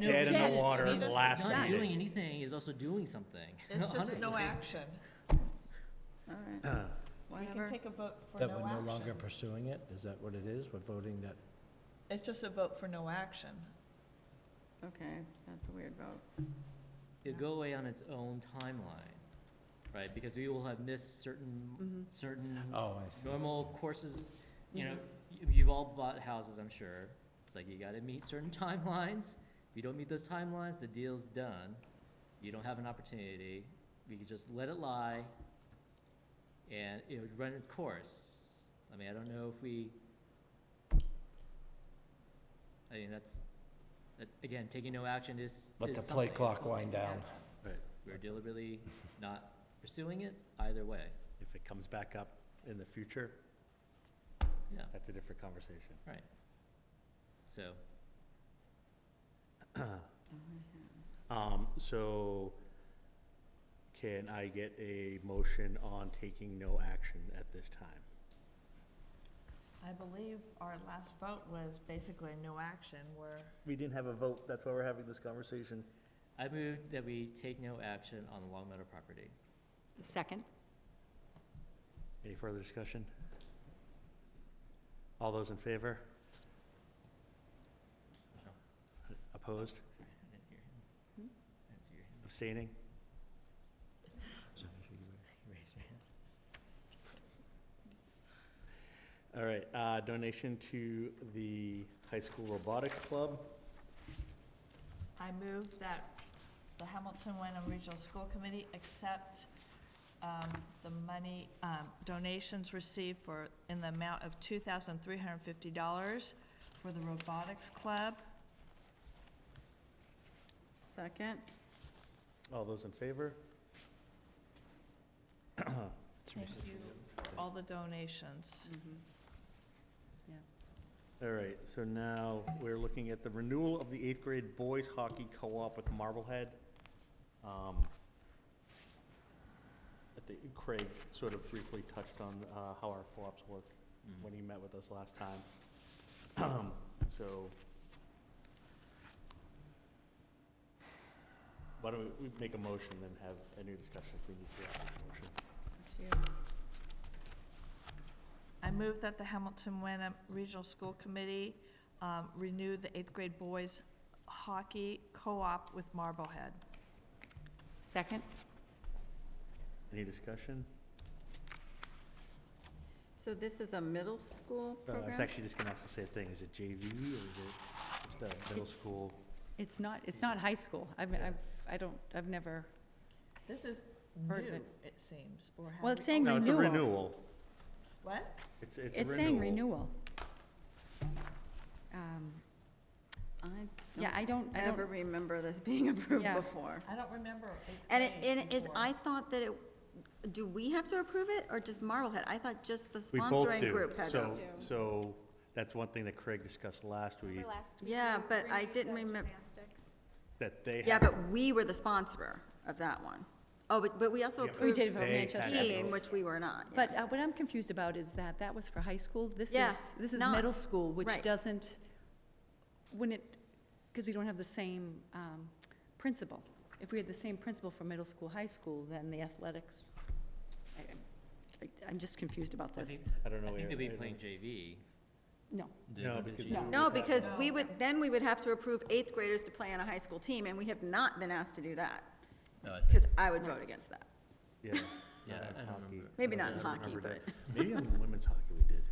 dead in dead. the water I mean, it's last done. Not doing meeting. anything is also doing something. There's just no honestly. action. All Uh, right. We can Whatever. take a vote for That we're no no longer action. pursuing it? Is that what it is? We're voting that? It's just a vote for no action. Okay, that's a weird vote. It'll go away on its own timeline, right? Because we will have missed Mm-hmm. certain, certain Oh, I see. normal courses, you know, y- you've all bought houses, I'm sure. It's like you gotta meet certain timelines. If you don't meet those timelines, the deal's done. You don't have an opportunity. We could just let it lie and it would run its course. I mean, I don't know if we, I mean, that's, that- again, taking no action is, is Let the something. play It's clock something. wind down. We're deliberately not pursuing it either way, If it comes back up in the future, yeah, that's a different conversation. right. So. Um, so can I get a motion on taking no action at this time? I believe our last vote was basically no action, where We didn't have a vote, that's why we're having this conversation. I move that we take no action on the Long Meadow property. Second. Any further discussion? All those in favor? No. Opposed? Sorry, I didn't hear him. I didn't Hmm? hear him. Abstaining? You raised your hand. All right, uh, donation to the high school robotics club. I move that the Hamilton Wyndham Regional School Committee accept um, the money, um, donations received for, in the amount of two thousand three hundred and fifty dollars for the robotics club. Second, All those in favor? Thank you for all the donations. Mm-hmm. All right, so now we're looking at the renewal of the eighth grade boys hockey co-op with Marblehead. Um, I think Craig sort of briefly touched on uh, how our co-ops work Hmm. when he met with us last time. Um, So. Why don't we we make a motion and have a new discussion if we need to have a motion? it's you. I move that the Hamilton Wyndham Regional School Committee um, renew the eighth grade boys hockey co-op with Marblehead. Second. Any discussion? So this is a middle school Uh, I was program? actually just gonna ask the same thing, is it JV or is it just a middle It's- school? It's not, it's not high school. I've, I've, I don't, I've never, This is Heard of new, it. it seems, or have Well, we it's saying always- No, it's a renewal. renewal. What? It's, it's a renewal. it's saying renewal. Um, I Yeah, I don't, I don't ever don't, remember this being approved Yeah. before. I don't remember. And it, and it is, I thought that it, do we have to approve it, or just Marblehead? I thought just the We both sponsoring do. group had to. So, so that's one thing that Craig discussed last week, Yeah, but I didn't remember, that they yeah, have, but we were the sponsor of that one. Oh, but, but we also Yeah, but approved did vote They had to 16, vote. which we were not. yeah. but uh, what I'm confused about is that that was for high school. This Yeah, is, this is not- middle school, which right. doesn't, when it, because we don't have the same um, principal. If we had the same principal for middle school, high school, then the athletics, I- I- I'm just confused about I this. think, I don't know. I where- think they'll be I don't- playing JV. No. They No, go to because JV. No. No, because we would, then we would have to approve eighth graders to play on a high school team, and we have not been asked to do that, Oh, I see. because I would vote against that. Yeah. Yeah, not I- I in don't hockey. remember. I Maybe not don't in hockey, remember but, that. Maybe in women's hockey we did.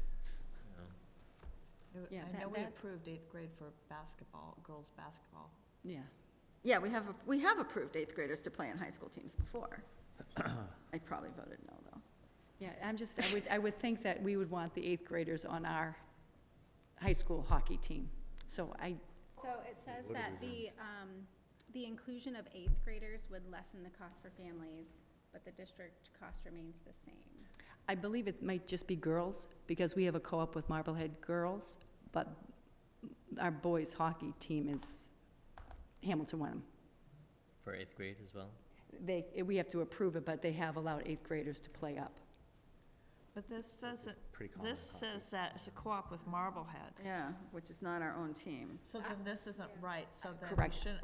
I Yeah, know that- we that- approved eighth grade for basketball, girls' basketball. Yeah. yeah, we have, we have approved eighth graders to play on high school teams before. I probably voted no, though. Yeah, I'm just, I would, I would think that we would want the eighth graders on our high school hockey team. So I, So it says that the, um, the inclusion of eighth graders would lessen the cost for families, but the district cost remains the same. I believe it might just be girls, because we have a co-op with Marblehead girls, but our boys' hockey team is Hamilton Wenham. For eighth grade as well? They, we have to approve it, but they have allowed eighth graders to play up. But this That's doesn't, pretty common this copy. says that it's a co-op with Marblehead. Yeah, which is not our own team. So then this isn't right, so then we Correct. shouldn't